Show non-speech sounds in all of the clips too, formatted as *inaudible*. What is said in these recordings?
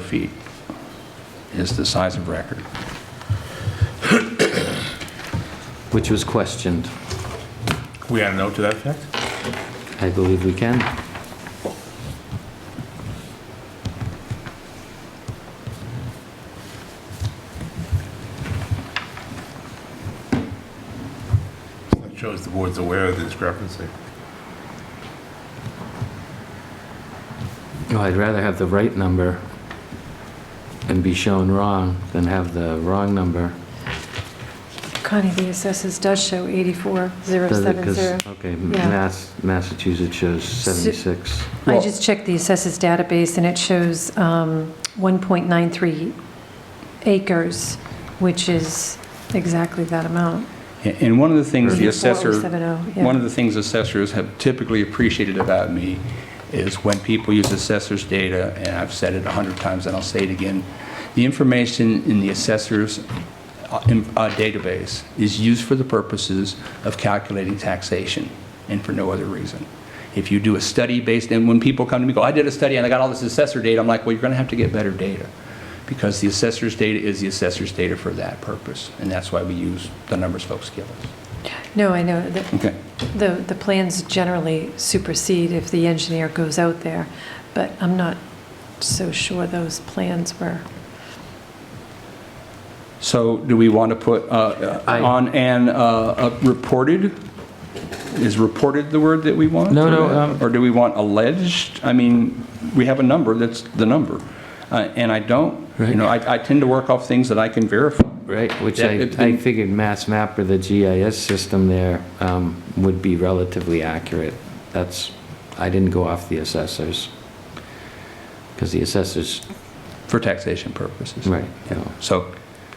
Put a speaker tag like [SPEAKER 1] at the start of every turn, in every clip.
[SPEAKER 1] square feet is the size of record.
[SPEAKER 2] which was questioned.
[SPEAKER 3] We had a note to that effect?
[SPEAKER 2] I believe we can.
[SPEAKER 3] That shows the board's aware of the discrepancy.
[SPEAKER 2] Oh, I'd rather have the right number and be shown wrong than have the wrong number.
[SPEAKER 4] Connie, the assessors does show
[SPEAKER 2] Does it- 'cause-
[SPEAKER 4] 84070.
[SPEAKER 2] Okay,
[SPEAKER 4] Yeah.
[SPEAKER 2] Mass, Massachusetts shows 76.
[SPEAKER 4] I just checked the assessors database, and it shows um, 1.93 acres, which is exactly that amount.
[SPEAKER 1] And one of the things the assessor,
[SPEAKER 4] 84070, yeah.
[SPEAKER 1] one of the things assessors have typically appreciated about me is when people use assessor's data, and I've said it a hundred times and I'll say it again, the information in the assessor's uh, in- uh, database is used for the purposes of calculating taxation and for no other reason. If you do a study based, and when people come to me, go, I did a study and I got all this assessor data, I'm like, well, you're going to have to get better data because the assessor's data is the assessor's data for that purpose, and that's why we use the numbers folks give us.
[SPEAKER 4] No, I know, that
[SPEAKER 1] Okay.
[SPEAKER 4] the, the plans generally supersede if the engineer goes out there, but I'm not so sure those plans were.
[SPEAKER 1] So do we want to put uh,
[SPEAKER 2] I-
[SPEAKER 1] on an uh, uh, reported? Is reported the word that we want?
[SPEAKER 2] No, no, um,
[SPEAKER 1] Or do we want alleged? I mean, we have a number, that's the number. Uh, And I don't, you know, I I tend to work off things that I can verify.
[SPEAKER 2] Right, which
[SPEAKER 1] That-
[SPEAKER 2] I,
[SPEAKER 1] it-
[SPEAKER 2] I figured Mass Map or the GIS system there um, would be relatively accurate. That's, I didn't go off the assessors. Because the assessors,
[SPEAKER 1] For taxation purposes.
[SPEAKER 2] right, you know.
[SPEAKER 1] So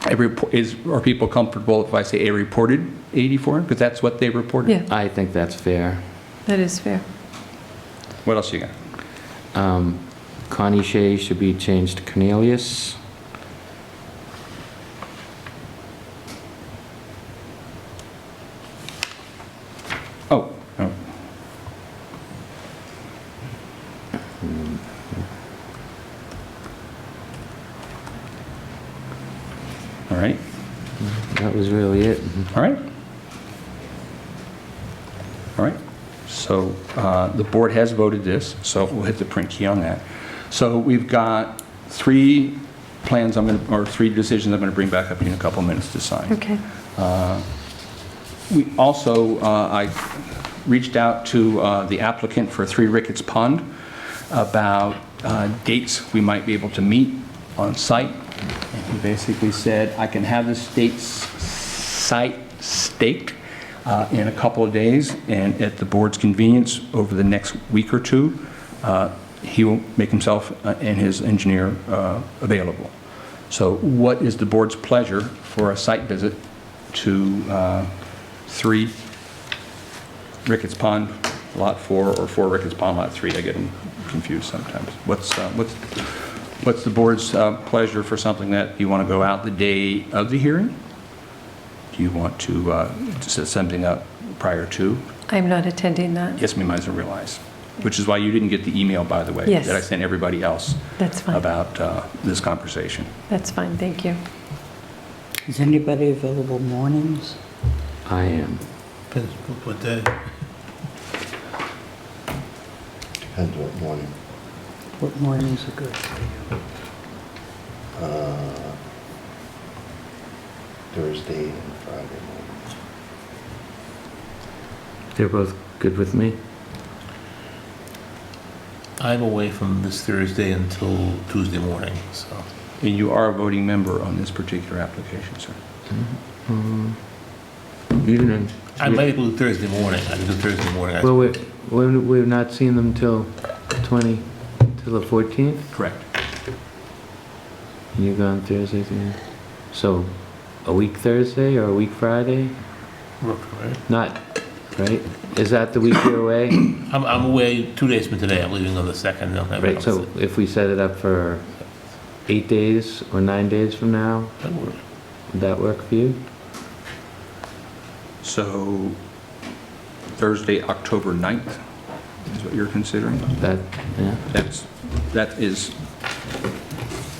[SPEAKER 1] a repo- is, are people comfortable if I say a reported 84? Because that's what they reported.
[SPEAKER 4] Yeah,
[SPEAKER 2] I think that's fair.
[SPEAKER 4] that is fair.
[SPEAKER 1] What else you got?
[SPEAKER 2] Um, Connie Shea should be changed to Cornelius.
[SPEAKER 1] Oh, oh. All right,
[SPEAKER 2] That was really it. Mm-hmm.
[SPEAKER 1] all right. All right, so uh, the board has voted this, so we'll hit the print key on that. So we've got three plans I'm going to, or three decisions I'm going to bring back up to you in a couple minutes to sign.
[SPEAKER 4] Okay.
[SPEAKER 1] We also, uh, I reached out to uh, the applicant for Three Ricketts Pond about uh, dates we might be able to meet on site. And He basically said, I can have this date, s- site staked uh, in a couple of days, and at the board's convenience, over the next week or two, uh, he will make himself uh, and his engineer uh, available. So what is the board's pleasure for a site visit to uh, 3 Ricketts Pond Lot 4 or 4 Ricketts Pond Lot 3? I get them confused sometimes. What's, uh, what's, what's the board's uh, pleasure for something that you want to go out the day of the hearing? Do you want to uh, to set something up prior to?
[SPEAKER 4] I'm not attending that.
[SPEAKER 1] Yes, we might as well realize, which is why you didn't get the email, by the way,
[SPEAKER 4] Yes.
[SPEAKER 1] that I sent everybody else
[SPEAKER 4] That's fine.
[SPEAKER 1] about uh, this conversation.
[SPEAKER 4] That's fine, thank you.
[SPEAKER 5] Is anybody available mornings?
[SPEAKER 2] I am.
[SPEAKER 3] Depends what day.
[SPEAKER 6] Depends what morning.
[SPEAKER 5] What mornings are good for you?
[SPEAKER 6] Uh, Thursday and Friday mornings.
[SPEAKER 2] They're both good with me.
[SPEAKER 3] I'm away from this Thursday until Tuesday morning, so.
[SPEAKER 1] And you are a voting member on this particular application, sir.
[SPEAKER 2] Um, Evening.
[SPEAKER 3] I might be able to do Thursday morning, I can do Thursday morning. I-
[SPEAKER 2] Well, we, we're, we're not seeing them till 20, till the 14th?
[SPEAKER 1] Correct.
[SPEAKER 2] You're gone Thursday, yeah. So, a week Thursday or a week Friday?
[SPEAKER 3] Rook, right?
[SPEAKER 2] Not, right? Is that the week you're
[SPEAKER 3] *coughs*
[SPEAKER 2] away?
[SPEAKER 3] I'm, I'm away two days from today, I'm leaving on the second. I'll have it
[SPEAKER 2] Right,
[SPEAKER 3] on
[SPEAKER 2] so if we set it up for eight days or nine days from now,
[SPEAKER 3] the- that works.
[SPEAKER 2] would that work for you?
[SPEAKER 1] So Thursday, October 9th is what you're considering?
[SPEAKER 2] That, yeah,
[SPEAKER 1] That's, that is